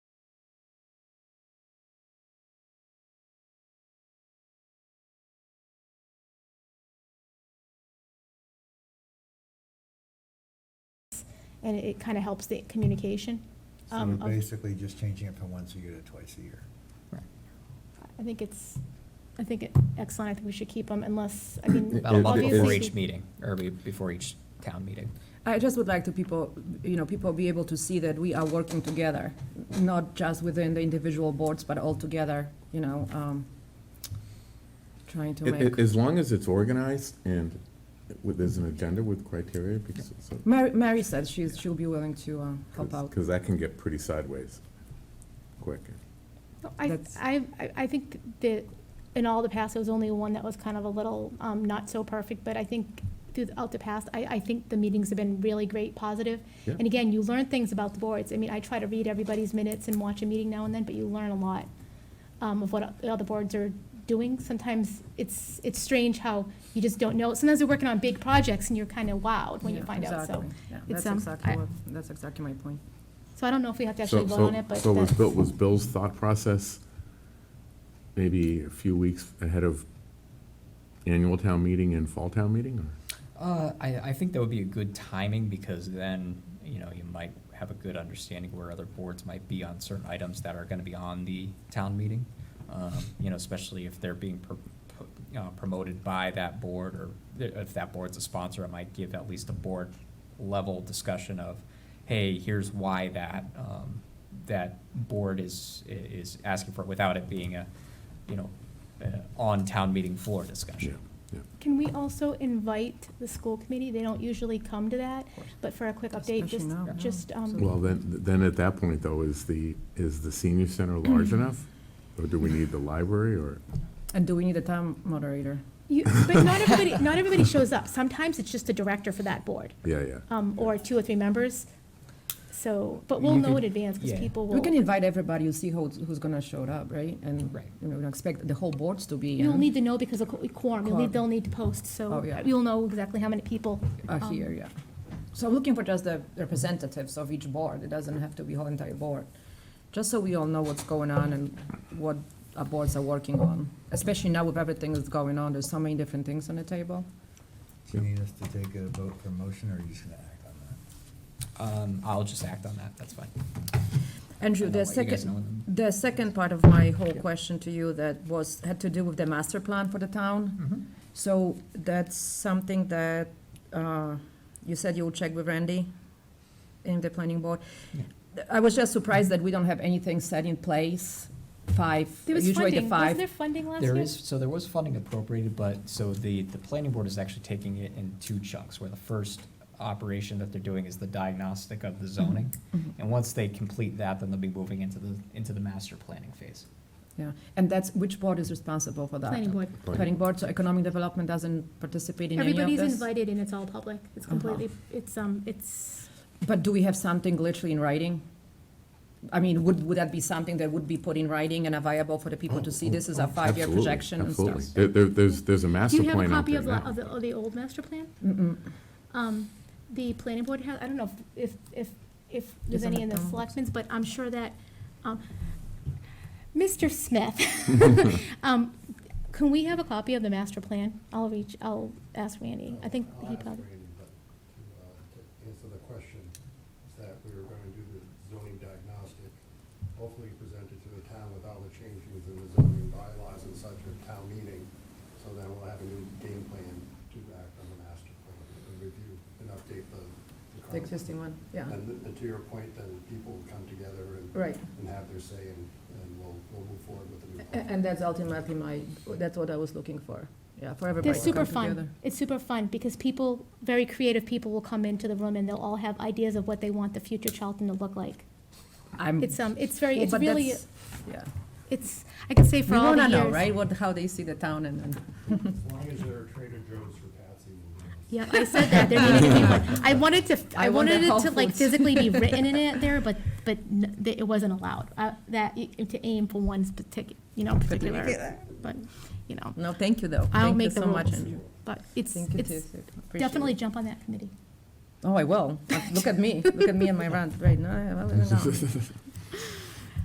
and it kind of helps the communication. So um, we're of- basically just changing it from once a year to twice a year. I think it's, I think it excellent, I think we should keep them unless, I mean. About a month obviously- before each meeting, or be- before each town meeting. I just would like to people, you know, people be able to see that we are working together, not just within the individual boards, but all together, you know, um, trying to It- it- make. As long as it's organized and with- there's an agenda with criteria, because so- Mary, Mary said she's, she'll be willing to, uh, help out. 'cause that can get pretty sideways quick. No, I, That's- I, I- I think that in all the past, there was only one that was kind of a little, um, not so perfect, but I think throughout the past, I, I think the meetings have been really great, positive. Yeah. And again, you learn things about the boards. I mean, I try to read everybody's minutes and watch a meeting now and then, but you learn a lot, um, of what the other boards are doing. Sometimes it's, it's strange how you just don't know. Sometimes they're working on big projects and you're kind of wowed when you Yeah, find out, so. exactly. Yeah, it's, That's um, exactly I- what, that's exactly my point. So I don't know if we have to So- actually vote so- on it, but. So was that's- Bill, was Bill's thought process maybe a few weeks ahead of annual town meeting and fall town meeting? or- Uh, I, I think that would be a good timing, because then, you know, you might have a good understanding where other boards might be on certain items that are gonna be on the town meeting. Um, You know, especially if they're being pro- pro- you know, promoted by that board, or th- if that board's a sponsor, it might give at least a board level discussion of, hey, here's why that, um, that board is, i- is asking for it, without it being a, you know, uh, on town meeting floor discussion. Yeah. Can we also invite the school committee? They don't usually come to that, Of course. but for a quick update, Especially just, now, yeah. just, um, Well, then, then at that point though, is the, is the senior center large enough? Or do we need the library or? And do we need a town moderator? you, but not everybody, not everybody shows up. Sometimes it's just a director for that board, Yeah, yeah. um, or two or three members. So, but we'll You know in could- advance, because yeah. people will, We can invite everybody, you see who's, who's gonna show up, right? And, Right. you know, we expect the whole boards to be you'll in, need to know because of qu- quorum, you'll Quorum. need, they'll need to post, so Oh, yeah. you'll know exactly how many people. are um, here, yeah. So I'm looking for just the representatives of each board, it doesn't have to be whole entire board. Just so we all know what's going on and what our boards are working on, especially now with everything that's going on, there's so many different things on the table. Do you need us to take a vote for motion, or are you just gonna act on that? Um, I'll just act on that, that's fine. Andrew, And I'll the let you guys know second, when- the second part of my whole question to you that was, had to do with the master plan for the town. Mhm. So that's something that, uh, you said you'll check with Randy in the planning board? Yeah. I was just surprised that we don't have anything set in place, five, There was usually the funding, wasn't five. there funding last year? There is, so there was funding appropriated, but, so the, the planning board is actually taking it in two chunks, where the first operation that they're doing is the diagnostic of the zoning. Mhm. And once they complete that, then they'll be moving into the, into the master planning phase. Yeah, and that's, which board is responsible for that? Planning board. Planning board, so economic development doesn't participate in any of this? Everybody's invited and it's all public. It's Uh-huh. completely, it's, um, it's, But do we have something literally in writing? I mean, would, would that be something that would be put in writing and available for the people to see? This is a five-year Absolutely, projection and stuff. Absolutely. There- there- there's, there's a do master you have a plan out copy there of, la- now. of the, of the old master plan? Mm-mm. Um, the planning board has, I don't know if, if, if there's Isn't any it in the down? selectmen's, but I'm sure that, um, Mr. Smith, um, can we have a copy of the master plan? I'll reach, I'll ask Randy. I think I'll he ask probably, Randy, but to, uh, to answer the question, is that we were gonna do the zoning diagnostic, hopefully present it to the town with all the changes in the zoning bylaws and such at town meeting, so then we'll have a new game plan to act on the master plan, and review and update the. the The current- existing one, yeah. And, th- and to your point, then people will come together and. Right. And have their say, and, and we'll, we'll move forward with the new. A- plan. And that's ultimately my, that's what I was looking for, yeah, for everybody they're to come together. super fun. It's super fun because people, very creative people will come into the room and they'll all have ideas of what they want the future Charlton to look like. I'm. It's, um, it's very, Hmm. Well, it's but really, that's- Yeah. it's, I can say We for all the wanna years. know, right, what, how they see the town and, and As long as there are Trader Joe's for Patsy. we'll do this. Yeah, I said that, there needed to be one. I wanted to, I I want wanted that it Whole to like Foods. physically be written in it there, but, but n- th- it wasn't allowed. Uh, That, y- to aim for one's particular, you know, particular, but, you know, no, thank you though. I'll Thank you make the so much, rules. Andrew. But it's, Thank you too, it's, Sue. Appreciate it. definitely jump on that committee. Oh, I will. Look at me, look at me and my rant right now. I will, I will.